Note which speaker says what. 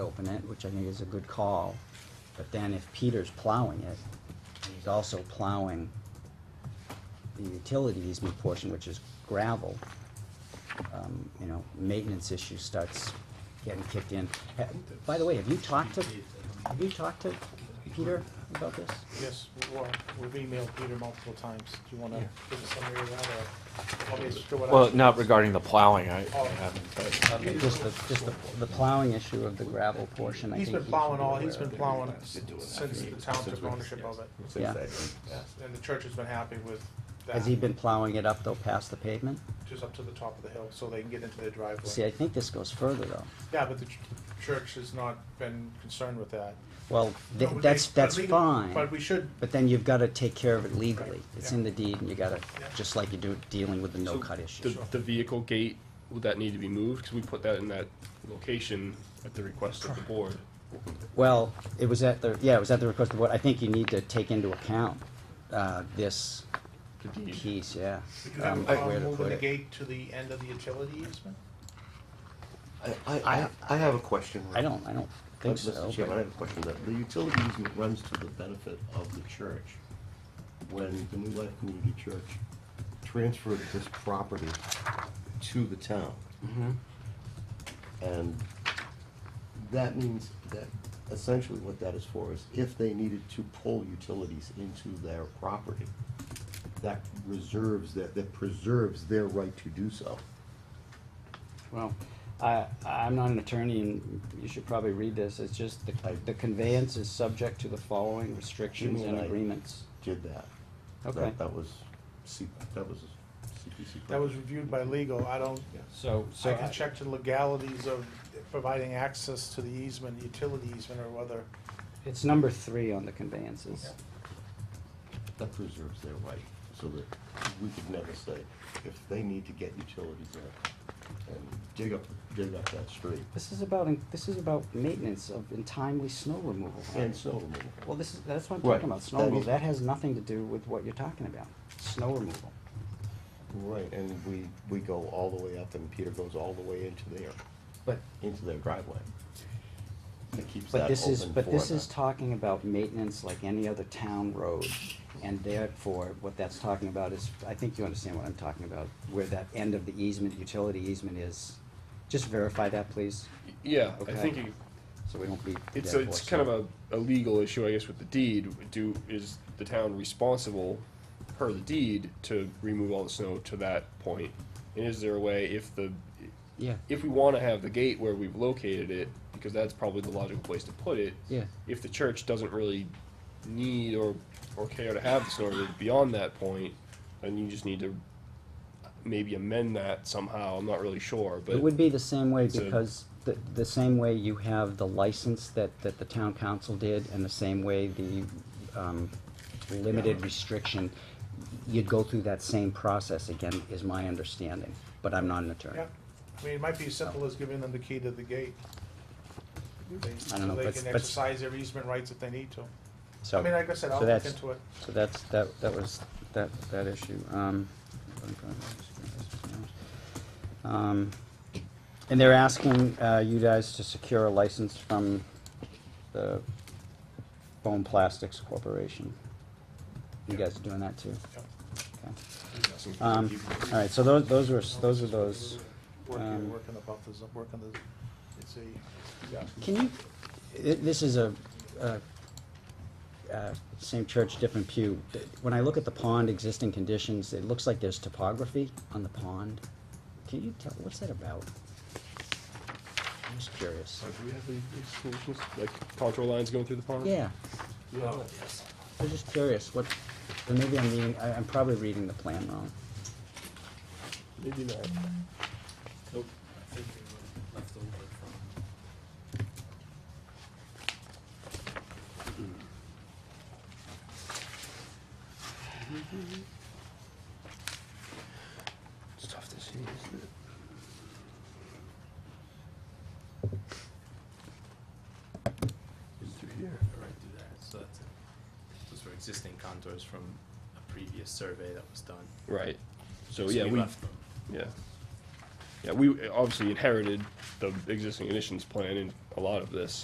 Speaker 1: dropping it, which I think is a good call. But then if Peter's plowing it, he's also plowing the utility easement portion, which is gravel, um, you know, maintenance issue starts getting kicked in. Ha- By the way, have you talked to, have you talked to Peter about this?
Speaker 2: Yes, well, we've emailed Peter multiple times. Do you want to give a summary of that or want me to just do what I?
Speaker 3: Well, not regarding the plowing, I, I haven't, but,
Speaker 1: Okay, Just the, just the, the plowing issue of the gravel portion, I think.
Speaker 2: He's been
Speaker 1: he should
Speaker 2: plowing
Speaker 1: be
Speaker 2: all,
Speaker 1: aware
Speaker 2: he's
Speaker 1: of.
Speaker 2: been plowing since the town took ownership of it.
Speaker 1: Yeah.
Speaker 2: And the church has been happy with that,
Speaker 1: Has he been plowing it up though, past the pavement?
Speaker 2: just up to the top of the hill so they can get into their
Speaker 1: See, I
Speaker 2: driveway.
Speaker 1: think this goes further though.
Speaker 2: Yeah, but the ch- church has not been concerned with that.
Speaker 1: Well, th-
Speaker 2: No, but
Speaker 1: that's,
Speaker 2: they- but
Speaker 1: that's
Speaker 2: we-
Speaker 1: fine.
Speaker 2: But we should,
Speaker 1: But then you've gotta take care of it legally.
Speaker 2: Right,
Speaker 1: It's
Speaker 2: yeah.
Speaker 1: in the deed and you gotta,
Speaker 2: Yeah.
Speaker 1: just like you do dealing with the
Speaker 4: So
Speaker 1: no-cut
Speaker 4: The,
Speaker 1: issue.
Speaker 2: Sure.
Speaker 4: the vehicle gate, would that need to be moved? Because we put that in that location at the request of the board.
Speaker 1: Well, it was at the, yeah, it was at the request of the board. I think you need to take into account, uh, this
Speaker 4: The deed.
Speaker 1: piece, yeah.
Speaker 2: would you have a
Speaker 1: um, where to
Speaker 2: problem moving
Speaker 1: put
Speaker 2: the
Speaker 1: it.
Speaker 2: gate to the end of the utility easement?
Speaker 5: I, I, I have a question.
Speaker 1: I don't, I don't think so.
Speaker 5: Mr. Chairman, I
Speaker 1: but-
Speaker 5: have a question. The the utility easement runs to the benefit of the church. When the New Life Community Church transferred this property to the town.
Speaker 1: Mm-hmm.
Speaker 5: And that means that essentially what that is for is if they needed to pull utilities into their property, that reserves, that, that preserves their right to do so.
Speaker 1: Well, I, I'm not an attorney and you should probably read this. It's just the, the conveyance is subject to the following restrictions and
Speaker 5: Right.
Speaker 1: agreements.
Speaker 5: Did that.
Speaker 1: Okay.
Speaker 5: That, that was, C- that was CPC.
Speaker 2: That was reviewed by legal. I don't,
Speaker 1: So, so.
Speaker 2: I can check the legalities of providing access to the easement, utility easement or whether.
Speaker 1: It's number three on the conveyances.
Speaker 5: That preserves their right, so that we could never say, if they need to get utilities in and dig up, dig up that street,
Speaker 1: This is about, this is about maintenance of in timely snow removal.
Speaker 5: and so removal.
Speaker 1: Well, this is, that's what I'm
Speaker 5: Right.
Speaker 1: talking about, snow
Speaker 5: That
Speaker 1: removal.
Speaker 5: is-
Speaker 1: That has nothing to do with what you're talking about, snow removal.
Speaker 5: Right, and we, we go all the way up, and Peter goes all the way into their,
Speaker 1: But,
Speaker 5: into their driveway. It keeps that
Speaker 1: but
Speaker 5: open
Speaker 1: this
Speaker 5: for
Speaker 1: is, but this is
Speaker 5: the-
Speaker 1: talking about maintenance like any other town road. And therefore, what that's talking about is, I think you understand what I'm talking about, where that end of the easement, utility easement is. Just verify that, please,
Speaker 4: Yeah, I
Speaker 1: Okay.
Speaker 4: think you-
Speaker 1: so we don't be.
Speaker 4: it's, a- it's kind of a, a legal issue, I guess, with the deed. Do, is the town responsible, per the deed, to remove all the snow to that point? And is there a way, if the,
Speaker 1: Yeah,
Speaker 4: if we wanna have the gate where we've located it, because that's probably the logical place to put it.
Speaker 1: Yeah.
Speaker 4: If the church doesn't really need or, or care to have the snow removed beyond that point, then you just need to maybe amend that somehow, I'm not really sure, but.
Speaker 1: It would be the same way
Speaker 4: It's a-
Speaker 1: because the, the same way you have the license that, that the town council did and the same way the, um, limited restriction, you'd go through that same process again, is my understanding, but I'm not an attorney.
Speaker 2: Yeah, I mean, it might be as simple as giving them the key to the gate. They- So
Speaker 1: know,
Speaker 2: they
Speaker 1: but-
Speaker 2: can
Speaker 1: but-
Speaker 2: exercise their easement rights if they need to.
Speaker 1: So,
Speaker 2: I mean, like I said, I'll
Speaker 1: so
Speaker 2: look
Speaker 1: that's,
Speaker 2: into it.
Speaker 1: so that's, that, that was, that, that issue, um. um, And they're asking, uh, you guys to secure a license from the Bone Plastics Corporation. You guys are doing that too?
Speaker 2: Yep.
Speaker 1: Okay. Um, all right, so those, those were, s- those are those. um,
Speaker 2: Working, working the buffers, working the, it's a, yeah.
Speaker 1: Can you, thi- this is a, a, uh, same church, different pew. Th- When I look at the pond existing conditions, it looks like there's topography on the pond. Can you tell, what's that about? I'm just curious.
Speaker 4: Uh, Do we have the exclusions, like contour lines going through the pond?
Speaker 1: Yeah, I'm just curious, what, or maybe I'm reading, I, I'm probably reading the plan wrong.
Speaker 4: Maybe not.
Speaker 6: Nope, I think it was left over from.
Speaker 4: It's tough to see, isn't it?
Speaker 6: It's through here. Right through there, so that's, those were existing contours from a previous survey that was done.
Speaker 4: Right, so, Oh, yeah, we,
Speaker 6: left them.
Speaker 4: yeah. Yeah, we obviously inherited the existing conditions plan in a lot of this,